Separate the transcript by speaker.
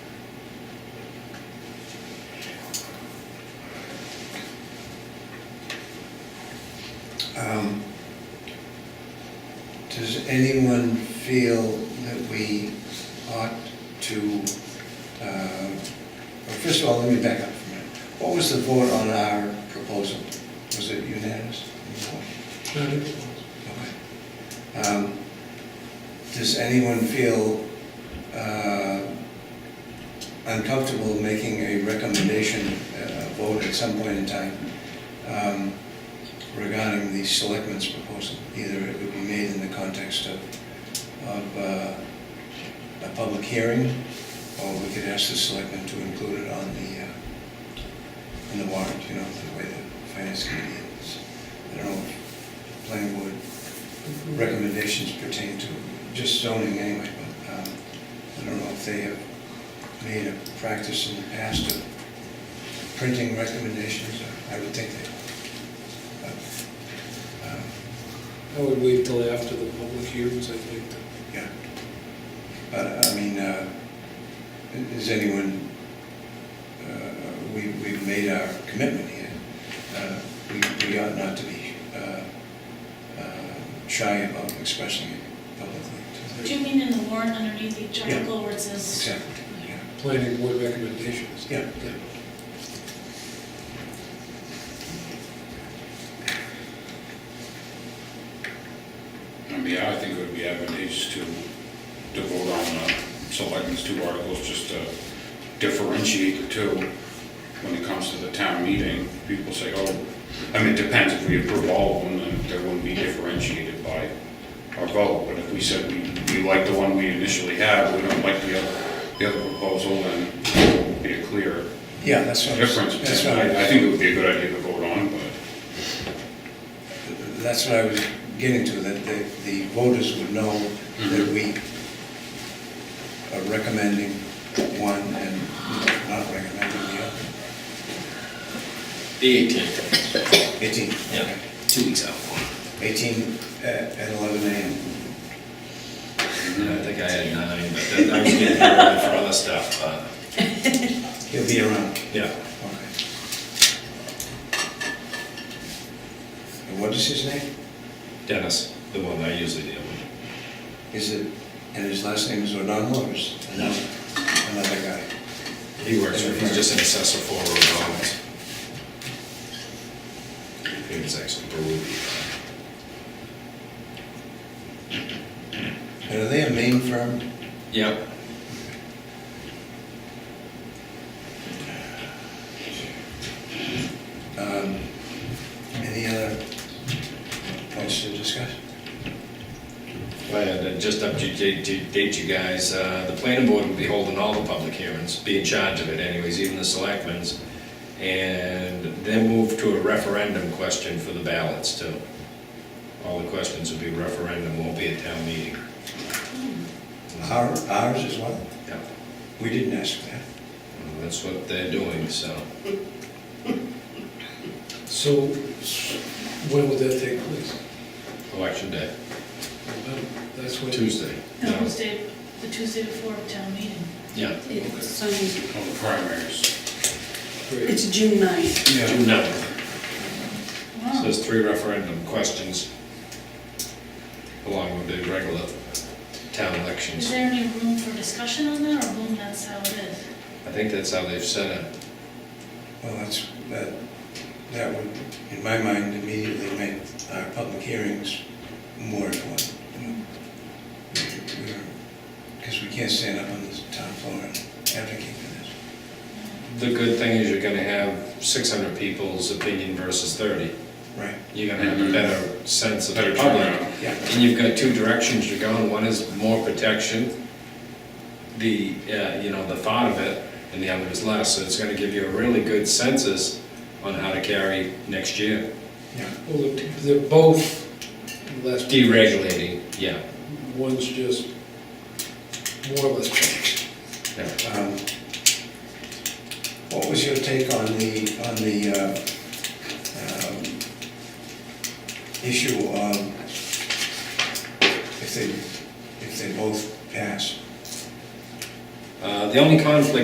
Speaker 1: Um, Does anyone feel that we ought to, uh, well, first of all, let me back up for a minute. What was the vote on our proposal? Was it unanimous? Okay. Um, Does anyone feel uh, uncomfortable making a recommendation, uh, vote at some point in time um, regarding the selectmen's proposal? Either it would be made in the context of, of uh, a public hearing, or we could ask the selectmen to include it on the, uh, on the warrant, you know, the way the finance committee is. I don't know if planning board recommendations pertain to just zoning anyway, but um, I don't know if they have made a practice in the past of printing recommendations, I would think they. but, um,
Speaker 2: I would wait till after the public hearings, I think.
Speaker 1: um, Yeah. But, I mean, uh, is anyone, uh, we, we've made our commitment here. Uh, We, we ought not to be uh, uh, shy about expressing it publicly.
Speaker 3: Do you mean in the warrant underneath each
Speaker 1: Yeah.
Speaker 3: article where it says?
Speaker 1: Exactly, yeah.
Speaker 2: Planning board recommendations.
Speaker 1: Yeah.
Speaker 4: I mean, I think it would be advantageous to, to vote on uh, selectmen's two articles, just to differentiate the two when it comes to the town meeting. People say, oh, I mean, it depends if we approve all of them, then they wouldn't be differentiated by our vote. But if we said we, we like the one we initially have, we don't like the other, the other proposal, then it would be a clear
Speaker 1: Yeah, that's what I was,
Speaker 4: difference.
Speaker 1: that's what
Speaker 4: I, I
Speaker 1: I,
Speaker 4: think it would be a good idea to vote on, but
Speaker 1: that's what I was getting to, that the, the voters would know that
Speaker 4: Mhm.
Speaker 1: we are recommending one and not recommending the other.
Speaker 5: The 18th,
Speaker 1: 18?
Speaker 5: Yeah.
Speaker 1: Okay.
Speaker 5: two weeks out.
Speaker 1: 18 uh, at at 11 a.m.
Speaker 5: I think I had nine, but then I was getting ready for other stuff, but,
Speaker 1: He'll be around.
Speaker 5: yeah.
Speaker 1: Okay. And what is his name?
Speaker 5: Dennis, the one I usually deal with.
Speaker 1: Is it, and his last name is O'Donnell or is another, another guy?
Speaker 5: He works for, he's just an assessor for Rhode Island. He was actually Berube.
Speaker 1: And are they a main firm?
Speaker 5: Yep.
Speaker 1: Um, Any other points to discuss?
Speaker 5: Well, then just update you- date you guys, uh, the planning board will be holding all the public hearings, be in charge of it anyways, even the selectmen's. And then move to a referendum question for the ballots too. All the questions will be referendum, won't be a town meeting.
Speaker 1: Our- Ours as well?
Speaker 5: Yeah,
Speaker 1: We didn't ask for that.
Speaker 5: well, that's what they're doing, so.
Speaker 2: So s- when would that take place?
Speaker 5: Election day,
Speaker 2: Um, That's when.
Speaker 5: Tuesday.
Speaker 3: No, Tuesday, the Tuesday before town meeting.
Speaker 5: Yeah.
Speaker 6: It's, so you-
Speaker 4: on the primaries.
Speaker 2: Great.
Speaker 6: it's June 9th.
Speaker 5: June 9th. So
Speaker 3: Wow.
Speaker 5: there's three referendum questions along with the regular town elections.
Speaker 3: Is there any room for discussion on that, or boom, that's how it is?
Speaker 5: I think that's how they've set it.
Speaker 1: Well, that's, that, that would, in my mind, immediately make our public hearings more important. Because we can't stand up on this town floor and advocate for this.
Speaker 5: The good thing is you're gonna have six hundred people's opinion versus thirty.
Speaker 1: Right.
Speaker 5: You're gonna have a better sense of the
Speaker 4: Mm-hmm. Better
Speaker 5: public.
Speaker 4: turnout.
Speaker 1: Yeah.
Speaker 5: And you've got two directions you're going. One is more protection, the, uh, you know, the thought of it, and the other is less. So it's gonna give you a really good census on how to carry next year.
Speaker 1: Yeah.
Speaker 2: Well, they're- they're both less.
Speaker 5: Deregulating, yeah,
Speaker 2: One's just more or less.
Speaker 5: yeah.
Speaker 1: Um, What was your take on the, on the uh, um, issue of if they, if they both pass?
Speaker 5: Uh, the only conflict